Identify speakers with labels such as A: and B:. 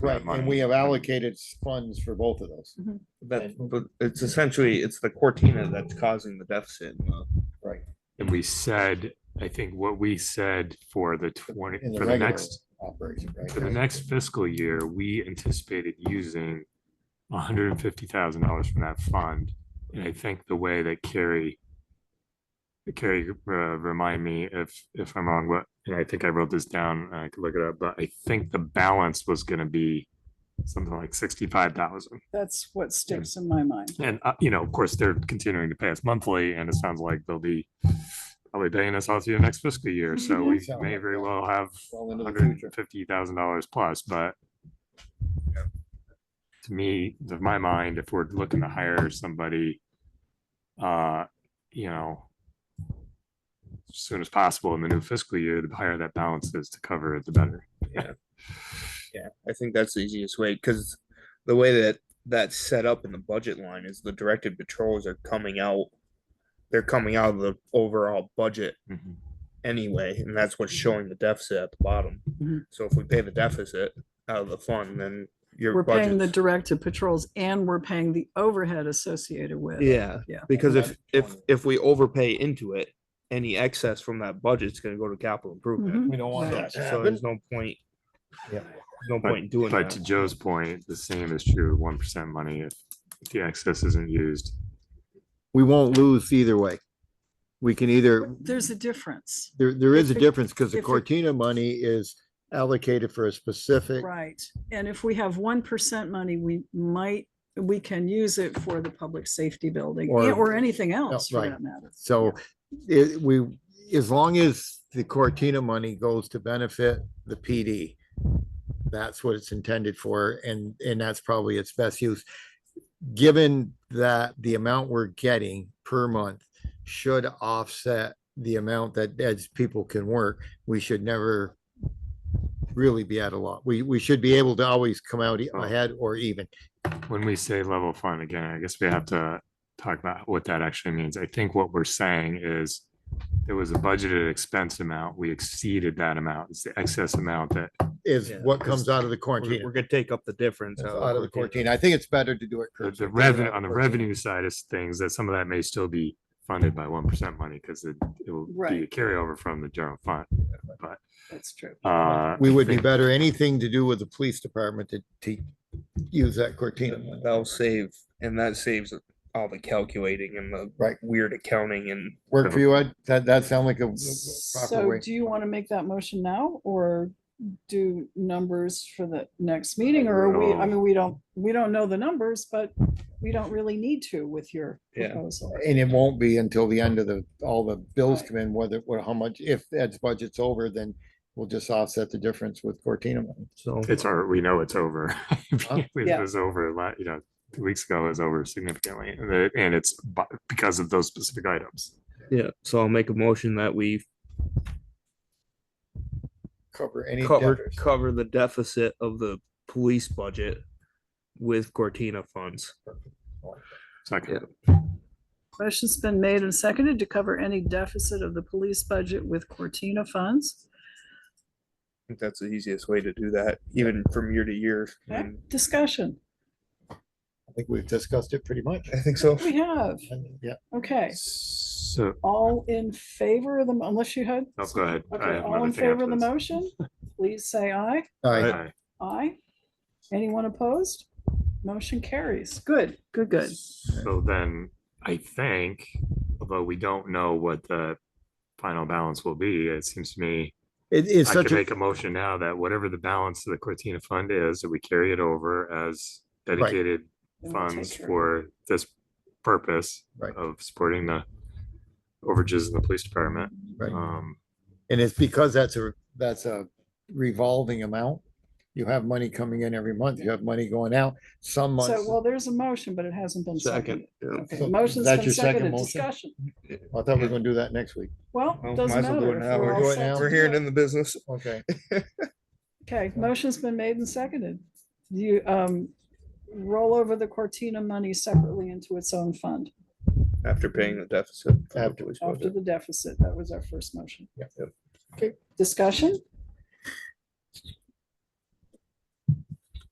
A: Right, and we have allocated s- funds for both of those.
B: That, but it's essentially, it's the Cortina that's causing the deficit. in the-
C: And we said, I think what we said for the twenty,
A: In the
C: for the
A: regular
C: next,
A: Operation,
C: for the
A: right?
C: next fiscal year, we anticipated using hundred and fifty thousand dollars from that fund. And I think the way that Carrie Carrie, uh, remind me if, if I'm wrong, what, and I think I wrote this down, I could look it up, but I think the balance was gonna be something like sixty-five thousand.
D: That's what sticks in my mind.
C: And, uh, you know, of course, they're continuing to pay us monthly and it sounds like they'll be probably paying us all through the next fiscal year. So we
A: Sound
C: may
A: Mm-hmm. like
C: very
A: that.
C: well have
A: Well into the
C: hundred
A: future.
C: and fifty thousand dollars plus, but to me, to my mind, if we're looking to hire somebody, uh, you know, as soon as possible in the new fiscal year, the higher that balance is to cover it, the better.
B: Yeah, I think that's the easiest way, because the way that that's set up in the budget line is the directed patrols are coming out. They're coming out of the overall budget
C: Mm-hmm.
B: anyway, and that's what's showing the deficit at the bottom.
D: Mhm.
B: So if we pay the deficit out of the fund, then your
D: We're paying the
B: budget.
D: directed patrols and we're paying the overhead associated with.
B: Yeah,
D: Yeah.
B: because if,
A: That's
B: if,
A: fine.
B: if we overpay into it, any excess from that budget's gonna go to capital improvement.
D: Mhm.
A: We don't want that to
B: So
A: happen.
B: there's no point.
A: Yeah.
B: No
C: But-
B: point in doing
C: But to
B: that.
C: Joe's point, the same is true, one percent money, if if the excess isn't used.
E: we won't lose either way. We can either,
D: There's a difference,
E: there, there is a
D: If it-
E: difference because the
D: if it-
E: Cortina money is allocated for a specific,
D: right? And if we have one percent money, we might, we can use it for the public safety building
E: Or-
D: and- or anything else for
E: right.
D: that matter.
E: so it, we, as long as the Cortina money goes to benefit the PD, that's what it's intended for and, and that's probably its best use. Given that the amount we're getting per month should offset the amount that as people can work, we should never really be at a lot. We, we should be able to always come out e-
C: Oh.
E: ahead or even.
C: When we say level fund, again, I guess we have to talk about what that actually means. I think what we're saying is there was a budgeted expense amount, we exceeded that amount, it's the excess amount that,
E: is
B: Yeah,
E: what
B: 'cause
E: comes out of the
B: We're we're
E: quarantine,
B: gonna take up the difference.
E: out of the
B: Cortina.
E: quarantine. I think it's better to do it.
C: the-
E: curbside,
C: the
E: take it
C: uh, revenue,
E: out
C: on the
E: of quarantine.
C: revenue side is things that some of that may still be funded by one percent money, because it it will be a
D: Right.
C: carryover from the general fund. But,
D: That's true.
C: uh.
E: We
C: I
E: would be
C: think-
E: better, anything to do with the police department to, to use that Cortina. money.
B: That'll save, and that saves all the calculating and the
E: Right.
B: weird accounting and
E: Work for you, Ed? That, that sound like a proper
D: So
E: way.
D: do you want to make that motion now or do numbers for the next meeting or are we, I
C: No.
D: mean, we don't, we don't know the numbers, but we don't really need to with your
B: Yeah.
D: proposal.
E: And it won't be until the end of the, all the bills come in, whether, well, how much, if Ed's budget's over, then we'll just offset the difference with Cortina money.
B: so.
C: It's our, we know it's over. It
D: Yeah.
C: was over a lot, you know, two weeks ago it was over significantly, and it- and it's bu- because of those specific items.
B: Yeah, so I'll make a motion that we
E: Cover any
B: cover,
E: debtors.
B: cover the deficit of the police budget with Cortina funds.
C: Second,
D: Question's been made and seconded to cover any deficit of the police budget with Cortina funds.
B: I think that's the easiest way to do that, even from year to year.
D: Okay, Discussion,
E: I think we've discussed it pretty much.
B: I think so.
D: we have,
E: Yeah,
D: okay,
C: so,
D: all in favor of the, unless you had,
C: no, go ahead. I
D: okay,
C: have
D: all
C: another
D: in
C: thing
D: favor of the
C: after this.
D: motion, please say aye.
E: all right.
C: Aye.
D: Aye. Anyone opposed? Motion carries. Good, good, good.
C: So then, I think, although we don't know what the final balance will be, it seems to me
E: It is
C: I
E: such
C: can
E: a,
C: make a motion now that whatever the balance of the Cortina fund is, that we carry it over as dedicated
D: Then we'll take
C: funds
D: care of it.
C: for this purpose
E: Right.
C: of supporting the overages in the police department.
E: Right.
C: Um,
E: and it's because that's a, that's a revolving amount. You have money coming in every month, you have money going out, some
D: So,
E: months.
D: well, there's a motion, but it hasn't been
B: Second.
D: seconded.
B: yeah.
D: Okay,
E: So
D: motion's
E: that's
D: been
E: your second
D: seconded,
E: motion?
D: discussion.
E: I thought we were gonna do that next week.
D: Well,
B: Well,
D: doesn't
B: might as well do
D: matter.
B: it
D: if
B: now.
E: We're
D: all
E: doing
D: set
E: now.
D: to
B: We're
D: do
B: here
D: it.
B: in the business.
E: Okay.
D: Okay, motion's been made and seconded. You, um, roll over the Cortina money separately into its own fund
B: After paying the deficit. from the
E: After-
B: police
D: after
B: budget.
D: the deficit. That was our first motion.
E: Yep.
D: Okay, discussion?